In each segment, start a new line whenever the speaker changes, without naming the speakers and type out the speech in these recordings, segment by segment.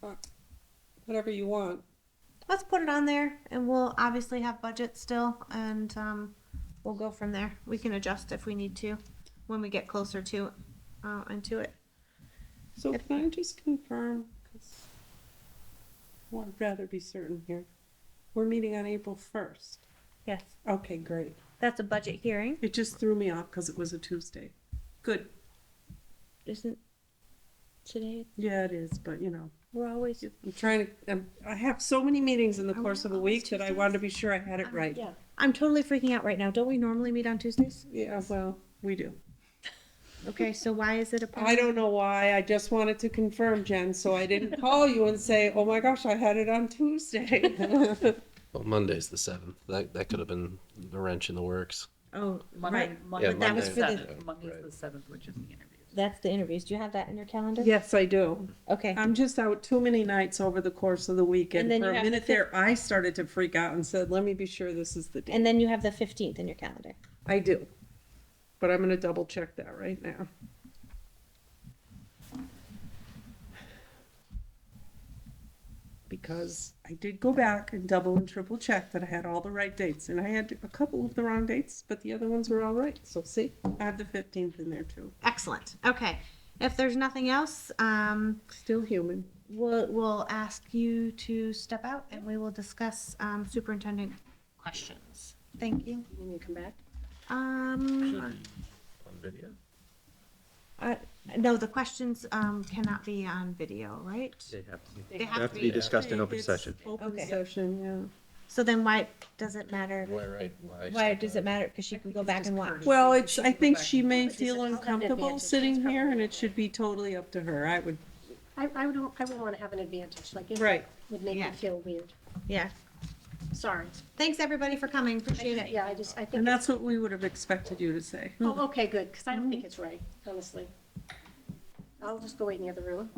fuck. Uh, Whatever you want.
Let's put it on there, and we'll obviously have budget still, and um, we'll go from there. We can adjust if we need to when we get closer to uh, into it.
So can I just confirm? Because I'd rather be certain here. We're meeting on April first.
Yes,
Okay, great.
that's a budget hearing,
It just threw me off because it was a Tuesday. Good.
isn't today?
Yeah, it is, but you know,
We're always
I'm trying to. I'm, I have so many meetings in the course of a week that I wanted to be sure I had it right.
Uh, yeah. I'm totally freaking out right now. Don't we normally meet on Tuesdays?
Yeah, well, we do.
Okay, so why is it a
I don't know why. I just wanted to confirm, Jen, so I didn't call you and say, "Oh my gosh, I had it on Tuesday."
Well, Monday's the seventh. That that could have been the wrench in the works.
Oh,
Monday,
right.
Monday,
Yeah,
that was
the
for the-
seventh. Monday's the seventh, which is the interviews.
That's the interviews. Do you have that in your calendar?
yes, I do.
Okay.
I'm just out too many nights over the course of the weekend.
And then
For
you
a
have
minute
to-
there, I started to freak out and said, "Let me be sure this is the date."
And then you have the 15th in your calendar.
I do, but I'm going to double check that right now. Because I did go back and double and triple check that I had all the right dates, and I had a couple of the wrong dates, but the other ones were all right. So see, I have the 15th in there too.
Excellent. Okay. If there's nothing else, um,
Still human.
we'll, we'll ask you to step out and we will discuss um, superintendent questions. Thank you.
When you come back?
Um,
On video.
uh, no, the questions um, cannot be on video, right?
They have to be-
They
have to be discussed in open
It's
session.
Open
Okay.
session, yeah.
So then why does it matter?
Why right? Why,
Why does it matter? Because she can go back and watch.
Well, it's. I think she may feel
I'll have to
uncomfortable
advantage.
sitting here, and it should be totally up to her. I would.
I, I would, I would want to have an advantage, like it
Right.
would make me
Yeah.
feel weird.
Yeah.
Sorry.
Thanks, everybody, for coming. Appreciate it.
Yeah, I just, I think,
And
it's-
that's what we would have expected you to say.
oh, okay, good, because I don't think it's right, honestly. I'll just go wait in the other room.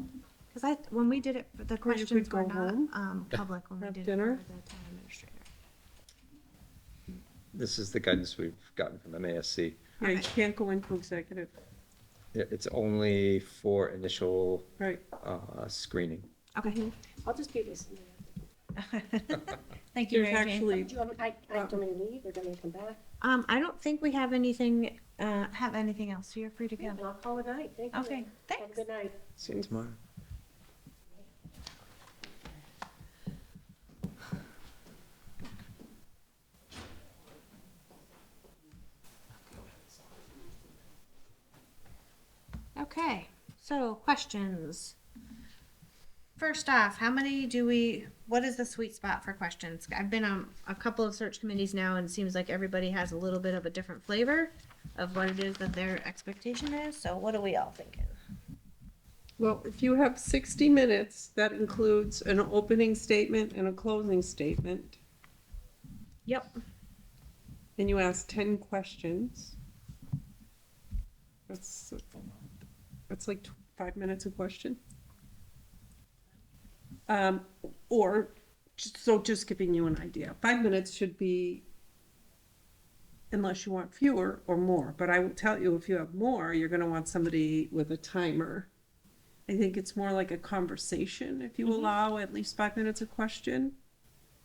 Because I, when we did it, the questions
go
were not
home,
um, public when we
have
did it.
dinner.
for the town administrator.
This is the guidance we've gotten from MASC.
Yeah, you can't go into executive,
It- It's only for initial
right?
uh, screening.
Okay.
I'll just be listening.
Thank you,
Mm-hmm. There's
Mary Jane.
actually,
Do you want, I, I don't want to leave or do you want me to come back?
Um, I don't think we have anything, uh, have anything else, so you're free to go.
And I'll call it night, thank you.
Okay,
Have a
thanks.
Good night.
See you tomorrow.
Okay, so questions. First off, how many do we, what is the sweet spot for questions? I've been on a couple of search committees now and it seems like everybody has a little bit of a different flavor of what it is that their expectation is, so what are we all thinking?
well, if you have sixty minutes, that includes an opening statement and a closing statement,
Yep.
and you ask ten questions. That's, that's like tw- five minutes a question. Um, or, just- so just giving you an idea, five minutes should be unless you want fewer or more, but I will tell you, if you have more, you're gonna want somebody with a timer. I think it's more like a conversation, if
Mm-hmm.
you allow at least five minutes a question.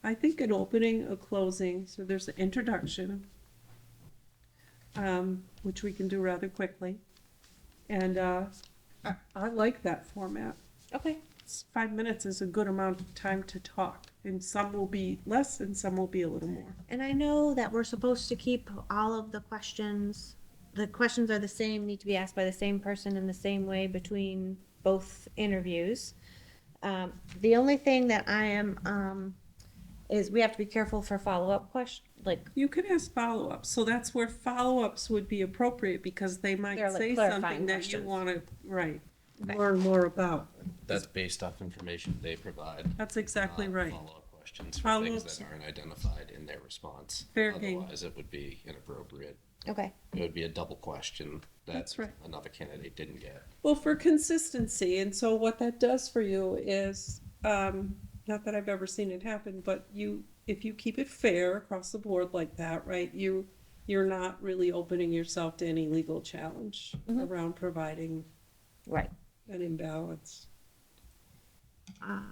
I think an opening, a closing, so there's an introduction, um, which we can do rather quickly. And, uh, I, I like that format.
Okay.
It's- Five minutes is a good amount of time to talk, and some will be less and some will be a little more.
And I know that we're supposed to keep all of the questions, the questions are the same, need to be asked by the same person in the same way between both interviews. Um, the only thing that I am, um, is we have to be careful for follow-up question, like,
You can ask follow-ups, so that's where follow-ups would be appropriate, because they might
They're like
say
clarifying
something that you
questions.
wanna, right,
Okay.
learn more about.
That's based off information they provide.
That's exactly
not
right.
Uh, Follow-up questions for things
Follow-ups.
that aren't identified in their response.
Fair game.
Otherwise, it would be inappropriate.
okay,
It would be a double question that
That's right.
another candidate didn't get.
Well, for consistency, and so what that does for you is, um, not that I've ever seen it happen, but you, if you keep it fair across the board like that, right, you, you're not really opening yourself to any legal challenge around providing
right.
an imbalance.
Um,